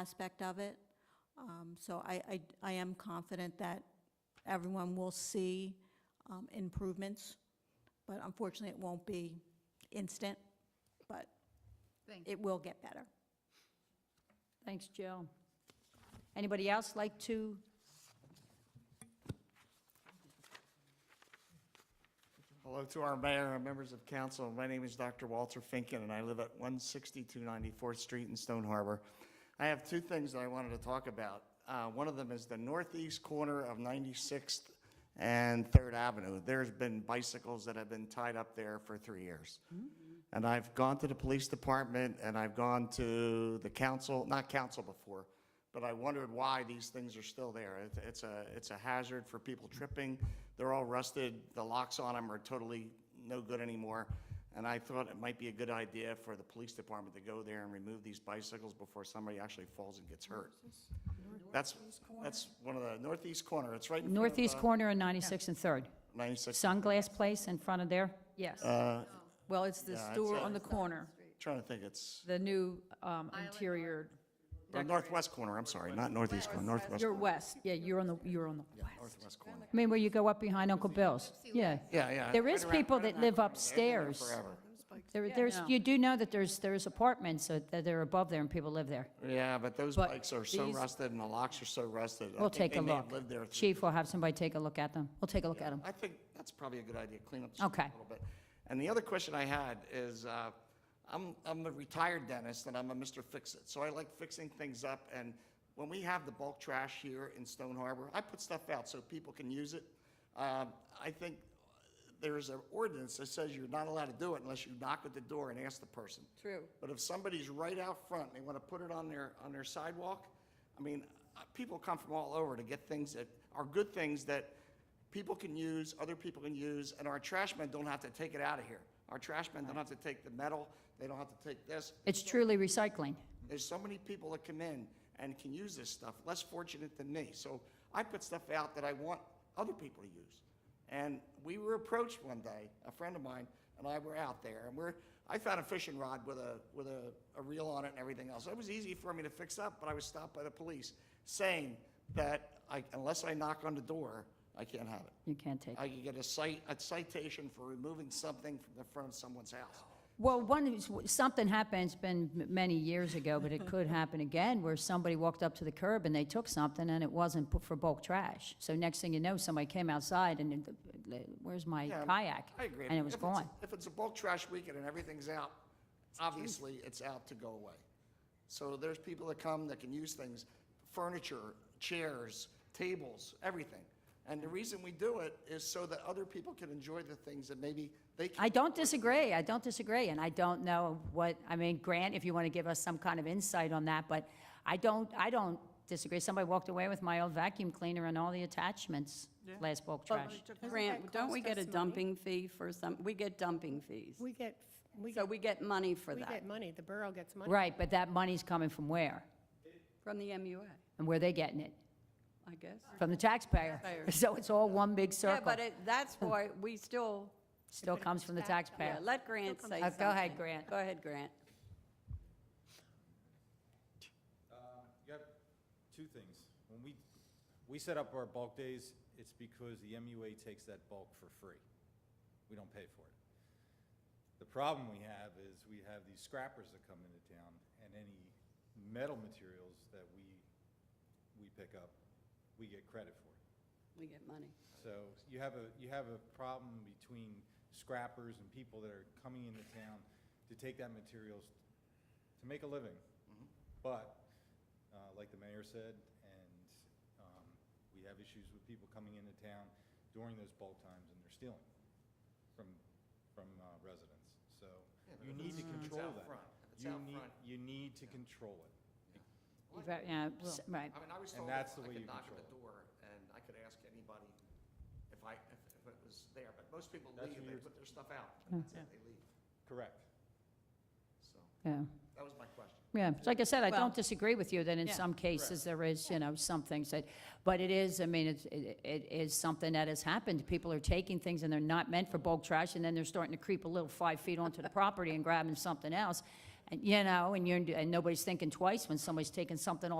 aspect of it. Um, So I, I, I am confident that everyone will see um, improvements, but unfortunately, it won't be instant, but Thank it will get better. Thanks, Jill. Anybody else like to? Hello to our mayor and members of council. My name is Dr. Walter Finken, and I live at 162 94th Street in Stone Harbor. I have two things that I wanted to talk about. Uh, One of them is the northeast corner of 96th and Third Avenue. There's been bicycles that have been tied up there for three years. And I've gone to the police department, and I've gone to the council, not council before, but I wondered why these things are still there. It- It's a, it's a hazard for people tripping. They're all rusted, the locks on them are totally no good anymore. And I thought it might be a good idea for the police department to go there and remove these bicycles before somebody actually falls and gets hurt. That's, that's one of the, northeast corner, it's right in front of Northeast corner and 96 and 3rd. 96. Sunglass Place in front of there? Yes. Uh, Well, it's the Yeah, it's store a- on the corner, Trying to think, it's, the new um, interior. or northwest corner, I'm sorry, not northeast corner, northwest. You're corner. west, yeah, you're on the, you're on the west. Northwest corner. I mean, where you go up behind Uncle Bill's, yeah. Yeah, yeah. There right is around- people right that around live corner. They've been there upstairs. Forever. There, there's, you do know that there's, there's apartments that that are above there and people live there. Yeah, but those But bikes are so these- rusted and the locks are so rusted. I We'll think take a They may have look. lived there. through- Chief will have somebody take a look at them. We'll take a look at them. I think that's probably a good idea, clean up the street Okay. a little bit. And the other question I had is, uh, I'm, I'm a retired dentist and I'm a Mr. Fix-It, so I like fixing things up. And when we have the bulk trash here in Stone Harbor, I put stuff out so people can use it. Um, I think there's an ordinance that says you're not allowed to do it unless you knock at the door and ask the person. True. But if somebody's right out front, and they want to put it on their, on their sidewalk, I mean, uh, people come from all over to get things that are good things that people can use, other people can use, and our trash men don't have to take it out of here. Our trash men don't have to take the metal, they don't have to take this. It's truly recycling. There's so many people that come in and can use this stuff, less fortunate than me. So I put stuff out that I want other people to use. And we were approached one day, a friend of mine and I were out there, and we're, I found a fishing rod with a, with a, a reel on it and everything else. It was easy for me to fix up, but I was stopped by the police saying that I, unless I knock on the door, I can't have it. You can't take it. I could get a cite, a citation for removing something from the front of someone's house. Well, one, is- something happened, it's been m- many years ago, but it could happen again, where somebody walked up to the curb and they took something and it wasn't put for bulk trash. So next thing you know, somebody came outside and, it- where's my Yeah, kayak? I agree. And it was If it's- gone. If it's a bulk trash weekend and everything's out, obviously, it's out to go away. So there's people that come that can use things, furniture, chairs, tables, everything. And the reason we do it is so that other people can enjoy the things that maybe they can. I don't disagree, I don't disagree, and I don't know what, I mean, Grant, if you want to give us some kind of insight on that, but I don't, I don't disagree. Somebody walked away with my old vacuum cleaner and all the attachments, last bulk trash. Grant, don't we get a dumping fee for some, we get dumping fees. We get, we So get, we get money for we that get money, the borough gets money. Right, but that money's coming from where? from the MUA, And where they getting it? I guess. From the taxpayer. Taxpayer. So it's all one big Yeah, circle. but it, that's why we still, Still comes from the yeah, taxpayer. let Grant say Uh, something. Go ahead, Grant. Go ahead, Grant. You have two things. When we, we set up our bulk days, it's because the MUA takes that bulk for free. We don't pay for it. The problem we have is we have these scrappers that come into town and any metal materials that we, we pick up, we get credit for it. We get money. So you have a, you have a problem between scrappers and people that are coming into town to take that materials to make a living. Mm-hmm. But, uh, like the mayor said, and, um, we have issues with people coming into town during those bulk times and they're stealing from, from uh, residents. So you need to control out that. front. If it's You out need, front. you need to control it. You've got- Yeah, s- right. I mean, I was And told that's if I the way could you knock at the control door and I could ask anybody if I, if if it was there, but most people That's leave, what they you're- put their stuff out, and that's it, they leave. Correct. So, Yeah, that was my question. yeah. So Like I said, I Well- don't disagree with you that in Yeah. some cases there is, you know, some things that, but it is, I mean, it's- it, it is something that has happened. People are taking things and they're not meant for bulk trash and then they're starting to creep a little five feet onto the property and grabbing something else. and, you know, and you're, and nobody's thinking twice when somebody's taking something off